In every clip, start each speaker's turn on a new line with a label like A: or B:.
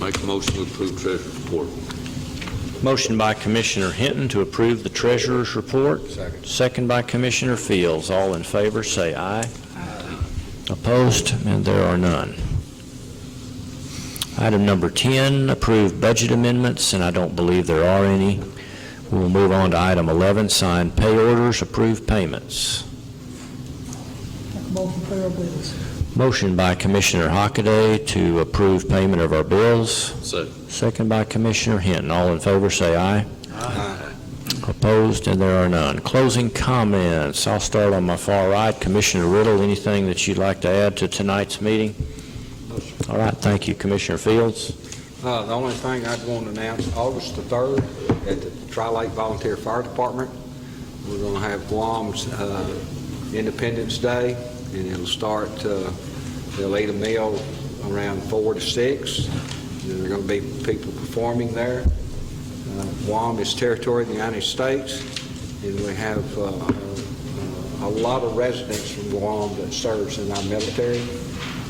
A: Make a motion to approve treasurer's report.
B: Motion by Commissioner Hinton to approve the treasurer's report. Second. by Commissioner Fields. All in favor, say aye. Opposed, and there are none. Item number 10, approve budget amendments, and I don't believe there are any. We'll move on to item 11, sign pay orders, approve payments.
C: Motion to pay our bills.
B: Motion by Commissioner Hockaday to approve payment of our bills.
A: Second.
B: Second by Commissioner Hinton. All in favor, say aye. Opposed, and there are none. Closing comments. I'll start on my far right. Commissioner Riddle, anything that you'd like to add to tonight's meeting? All right, thank you. Commissioner Fields?
D: Uh, The only thing I'd want to announce, August the 3rd, at the Tri-Lake Volunteer Fire Department, we're going to have Guam's uh, Independence Day, and it'll start, uh, they'll eat a meal around 4 to 6. There are going to be people performing there. Uh, Guam is territory of the United States, and we have uh, uh, a lot of residents from Guam that serves in our military.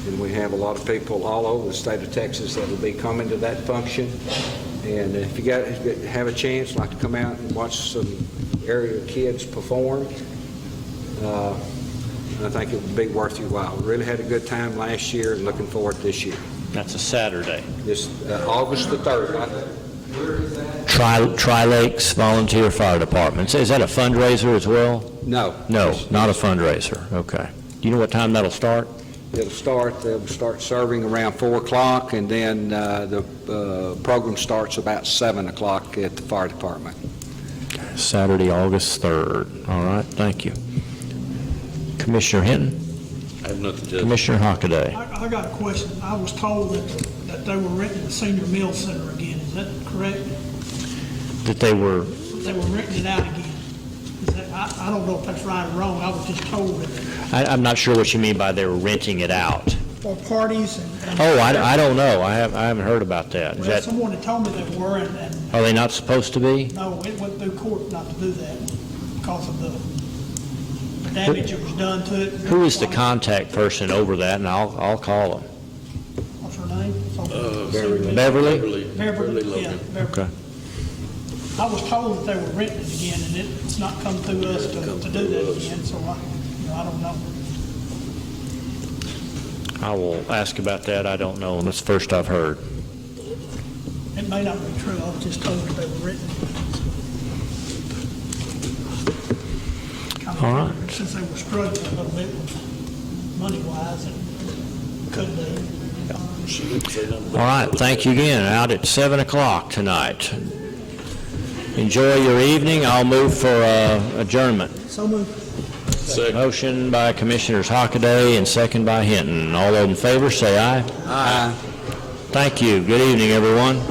D: And we have a lot of people all over the state of Texas that will be coming to that function. And if you got, if you have a chance, like to come out and watch some area kids perform, uh, I think it would be worth your while. Really had a good time last year and looking forward to this year.
B: That's a Saturday.
D: This, uh, August the 3rd, I think.
B: Tri Tri Lakes Volunteer Fire Department. Is that a fundraiser as well?
D: no.
B: No, not a fundraiser. Okay. Do you know what time that'll start?
D: It'll start, they'll start serving around 4 o'clock, and then uh, the uh, program starts about 7 o'clock at the fire department.
B: Saturday, August 3rd. All right, thank you. Commissioner Hinton?
A: I have nothing to add.
B: Commissioner Hockaday.
C: I, I got a question. I was told that, that they were renting the senior meal center again. Is that correct?
B: That they were,
C: They were renting it out again. Is that, I, I don't know if that's right or wrong. I was just told that
B: I, I'm not sure what you mean by they were renting it out.
C: for parties and. and-
B: Oh, I, I don't know. I have, I haven't heard about that. Is
C: Well,
B: that,
C: someone had told me they were, and, and
B: are they not supposed to be?
C: no, it went through court not to do that because of the damage that was done to it.
B: Who is the contact person over that, and I'll, I'll call them.
C: What's her name? Something-
B: Beverly?
C: Beverly, yeah,
A: Logan.
C: Beverly.
B: Okay.
C: I was told that they were renting it again, and it's not come through us to, to do that again, so I, you know, I don't know.
B: I will ask about that. I don't know. That's the first I've heard.
C: It may not be true, I was just told that they were renting. it.
B: All right.
C: Since they were struggling a little bit with money-wise, and couldn't they?
B: All right, thank you again. Out at 7 o'clock tonight. Enjoy your evening. I'll move for uh, adjournment.
C: So moved.
A: Second.
B: Motion by Commissioners Hockaday and second by Hinton. All those in favor, say aye. Aye. Thank you. Good evening, everyone.